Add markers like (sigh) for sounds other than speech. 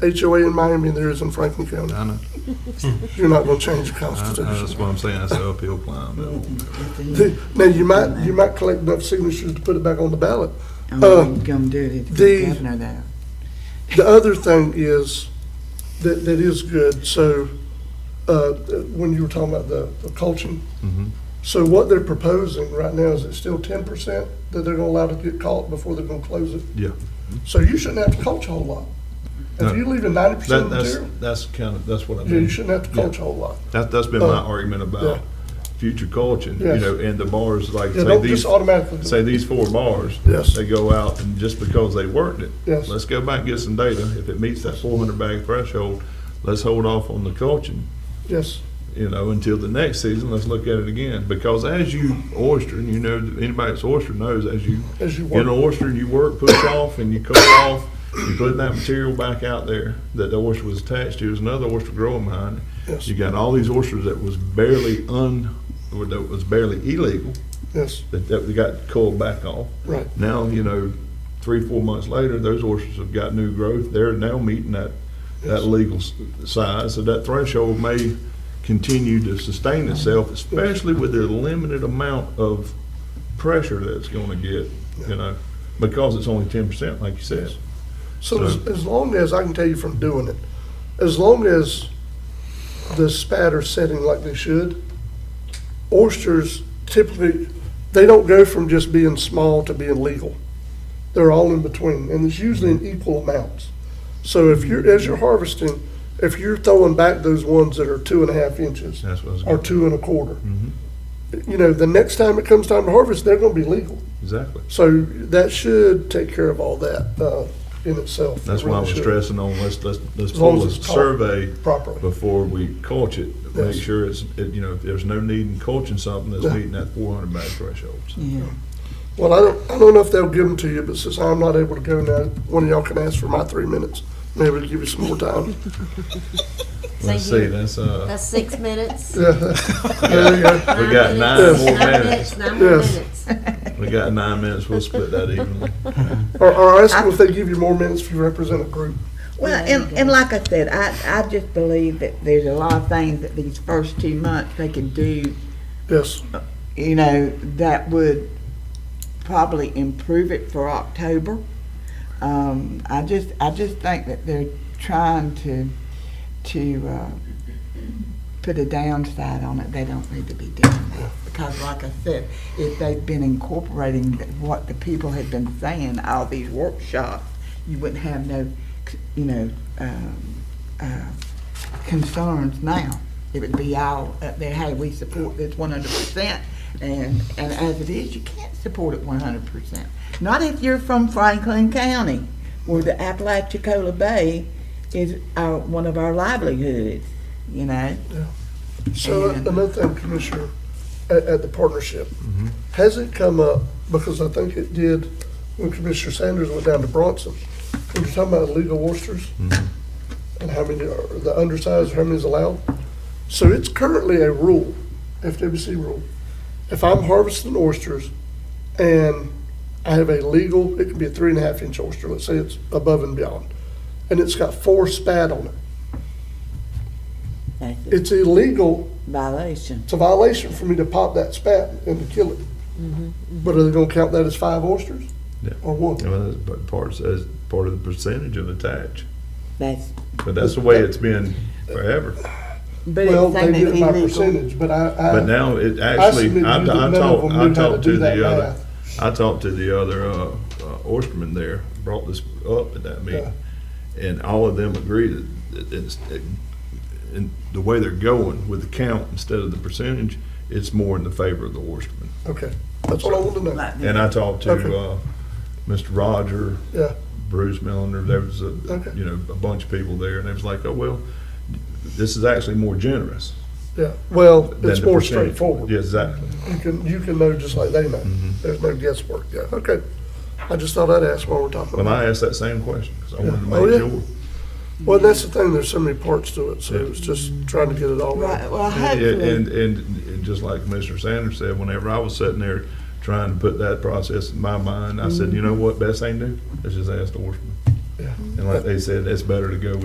HOA in Miami than there is in Franklin County. I know, You're not gonna change the I- I- that's Constitution. what I'm saying, that's an uphill climb. The- Now, you might, you might collect enough signatures to put it back on the ballot. I'm Uh, gonna do it if the- the governor there. The other thing is, that, that is good, so, uh, when you were talking about the the coaching, Mhm. so what they're proposing right now, is it still ten percent that they're gonna allow to get caught before they're gonna close it? Yeah, So you shouldn't have to coach a whole lot. If No. you leave a ninety percent that, that's, material, that's kind of, that's what I yeah, mean. you shouldn't have to coach a whole lot. That, that's been my Uh, argument yeah. about future coaching, you Yes. know, and the bars, like, Yeah, say don't just these, automatically. say these four bars. Yes. They go out and just because they worked it. Yes. Let's go back and get some data. If it meets that four hundred bag threshold, let's hold off on the coaching, Yes, you know, until the next season. Let's look at it again. Because as you oyster, and you know, anybody that's oyster knows, as you as you get an work. oyster and you work, push off and you cut off, you put that material back out there that the oyster was attached to, there's another oyster growing behind it. Yes, You got all these oysters that was barely un, or that was barely illegal, yes, that, that we got culled back off. right. Now, you know, three, four months later, those oysters have got new growth. They're now meeting that, that yes. legal s- size. So that threshold may continue to sustain itself, especially with the limited amount of pressure that it's gonna get, you know, because it's only ten percent, like you said. So as, as long as, I can tell you from doing it, as long as the spat are setting like they should, oysters typically, they don't go from just being small to being legal. They're all in between, and it's usually in equal amounts. So if you're, as you're harvesting, if you're throwing back those ones that are two and a half inches That's what I was. or two and a quarter, Mhm. you know, the next time it comes time to harvest, they're gonna be legal. Exactly. So that should take care of all that uh, in itself. It That's why I really was should, stressing on, let's, let's, let's As long pull a as it's taught. survey Properly, before we coach it. Yes. Make sure it's, it- you know, if there's no need in coaching something that's Yeah. meeting that four hundred bag threshold. So, Yeah, well, I don't, I don't know if they'll give them to you, but since I'm not able to go now, one of y'all can ask for my three minutes. Maybe it'll give you some more time. Let's Thank see, you. that's, uh, That's six minutes. Yeah, there you go. we got nine minutes. more Nine minutes. Nine more Yes. minutes. We got nine minutes, we'll split that (laughs) evenly. Or, or ask them if they give you more minutes if you represent a group. well, and, and like I said, I, I just believe that there's a lot of things that these first two months they can do, Yes, you know, that would probably improve it for October. Um, I just, I just think that they're trying to, to, uh, put a downside on it. They don't need to be doing that. Because like I said, if they've been incorporating th- what the people had been saying, all these workshops, you wouldn't have no, c- you know, um, uh, concerns now. It would be all up there, hey, we support this one hundred percent. And, and as it is, you can't support it one hundred percent. Not if you're from Franklin County, where the Apalachicola Bay is our, one of our livelihoods, you know? so And- another thing, Commissioner, at, at the partnership, has it come up, because I think it did when Commissioner Sanders went down to Bronson, we were talking about illegal oysters and how many are the undersized, how many is allowed. So it's currently a rule, FWC rule. If I'm harvesting oysters and I have a legal, it could be a three and a half inch oyster, let's say it's above and beyond, and it's got four spat on it, That's a it's illegal violation. It's a violation for me to pop that spat and to kill it. But are they gonna count that as five oysters? Yeah. Or one? Well, that's part- part, that's part of the percentage of attach, That's, but that's the way it's been forever. but Well, it's they saying did it's it by illegal. percentage, but I, But I, now it Uh, I submit actually, you I, I that none of talked, them I knew how to talked to do that the other, math. I talked to the other, uh, uh, oysterman there, brought this up at that meeting. And all of them agreed that it- it's, it- and the way they're going with the count instead of the percentage, it's more in the favor of the oysterman. Okay, that's what I wanted to know. Like And I talked to, Okay. uh, Mr. Roger, Yeah, Bruce Millender, there was a, Okay. you know, a bunch of people there and it was like, oh, well, this is actually more generous yeah. Well, than it's the more percentage. straightforward. Yeah, Mm-hmm. Exactly. You can, you can know just like they know. There's no guesswork, yeah, okay. I just thought I'd ask while we're talking When about I it. asked that same question, because I wanted to Yeah. Oh, yeah. make sure. Well, that's the thing, there's so many parts to it, so Yeah. it's just trying to get it all right. Right, well, And, and, hopefully, and and just like Commissioner Sanders said, whenever I was sitting there trying to put that process in my mind, I said, you know what, best thing to do, let's just ask the horseman. Yeah. And like they said, it's better to go